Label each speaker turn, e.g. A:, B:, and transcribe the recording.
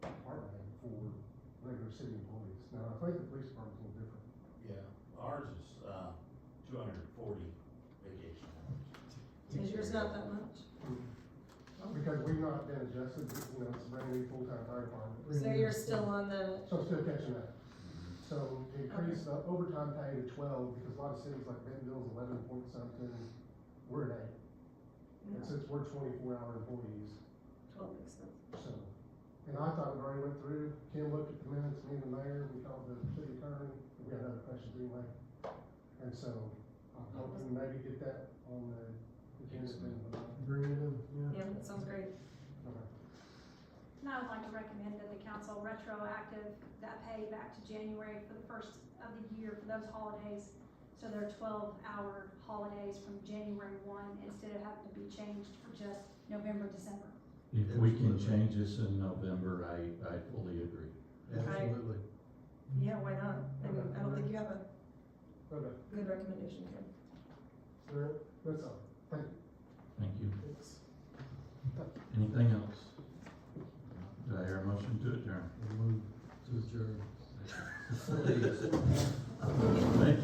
A: city employees. Now, I think the police department's a little different.
B: Yeah, ours is, uh, two hundred and forty vacation hours.
C: Is yours not that much?
A: Because we've not been adjusted, you know, it's a brand new full-time fire department.
C: So you're still on the,
A: So I'm still catching up. So increase the overtime pay to twelve, because a lot of cities like Bentonville's eleven point something, we're at eight. And since we're twenty-four hour employees,
C: twelve makes sense.
A: so. And I thought it already went through, Kim looked at the minutes, me and the mayor, we called the city attorney, we had other questions anyway. And so I'm hoping maybe get that on the agenda then, but I-
D: Bring it in, yeah.
C: Yeah, that sounds great.
A: okay.
E: And I would like to recommend that the council retroactive that pay back to January for the first of the year for those holidays. So they're twelve-hour holidays from January one, instead of having to be changed for just November, December.
F: If we
D: Absolutely.
F: can change this in November, I, I fully agree.
D: Absolutely.
C: Yeah, why not? I mean, I don't think you have a
A: Okay,
C: good recommendation here.
A: so uh, that's all. Thank you.
F: Thank you. Anything else? Do I hear a motion to adjourn?
D: And move to adjourn.
F: Thank you.